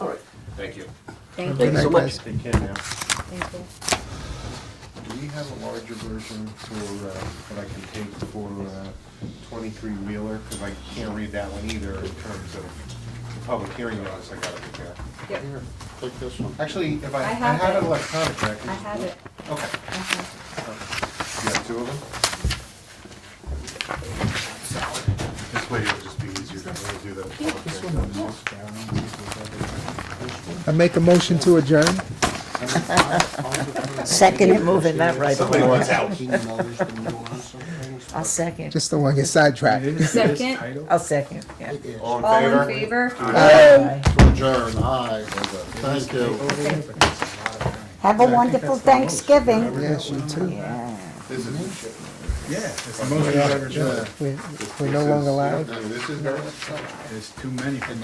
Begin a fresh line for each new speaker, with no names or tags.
Thank
Thank
you.
you so
Good night,
much.
guys. Take care now.
Thank you.
Do we have a larger version for, uh, that I can take for twenty-three wheeler? Because I can't read that one either in terms of the public hearing notice I gotta prepare.
Yep.
Here, take this one.
Actually, if I, I
I have
have
it.
it electronic, I can.
I have it.
Okay.
I have
You have two of them? This way it'll just be easier to really do the public hearing notices.
I make a motion to adjourn.
Second it, moving that right
Somebody
along.
wants out.
I'll second,
Just don't want to get sidetracked.
it. Second,
I'll second, yeah.
All
all in
in
favor?
Bye.
Adjourn, aye. Thank you.
Have a wonderful Thanksgiving.
Yes, you too.
This is,
We're we're no longer live.
I mean, this is very.
There's too many for my